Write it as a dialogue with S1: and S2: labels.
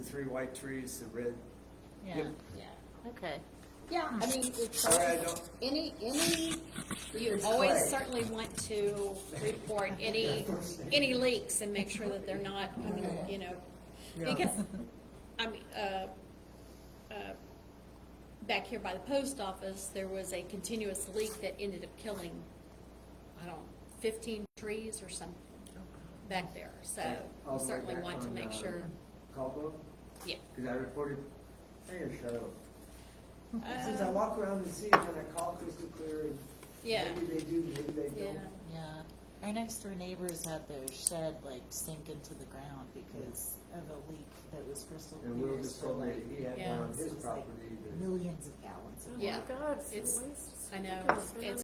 S1: three white trees, the red.
S2: Yeah,
S1: Yep.
S3: Yeah,
S2: okay.
S3: yeah, I mean, it's,
S1: Sorry, I don't,
S3: any, any, you
S1: It's
S3: always
S1: clay.
S3: certainly want to report any, any leaks and make sure that they're not, you know,
S1: Yeah.
S3: because, I mean, uh, uh, back here by the post office, there was a continuous leak that ended up killing, I don't, know, fifteen trees or something back there, so
S1: all
S3: we
S1: the way
S3: certainly
S1: back
S3: want to
S1: on,
S3: make
S1: uh,
S3: sure,
S1: Caldwell,
S3: yeah.
S1: because I reported, I got a shadow. Since I
S3: Uh,
S1: walk around and see it, when I call crystal clear, and
S3: Yeah.
S1: maybe they do, maybe they
S3: Yeah,
S1: don't.
S2: Yeah, our next door neighbors had their shed like sink into the ground because of a leak that was crystal clear.
S1: And Will just
S2: so,
S1: told me
S2: like,
S1: he had
S3: Yeah.
S1: one on
S2: it
S1: his
S2: was like
S1: property, but
S2: Millions of gallons of
S3: yeah.
S4: Oh God,
S3: It's-
S4: waste.
S3: I know,
S4: Look at
S3: it's,
S4: the
S3: it's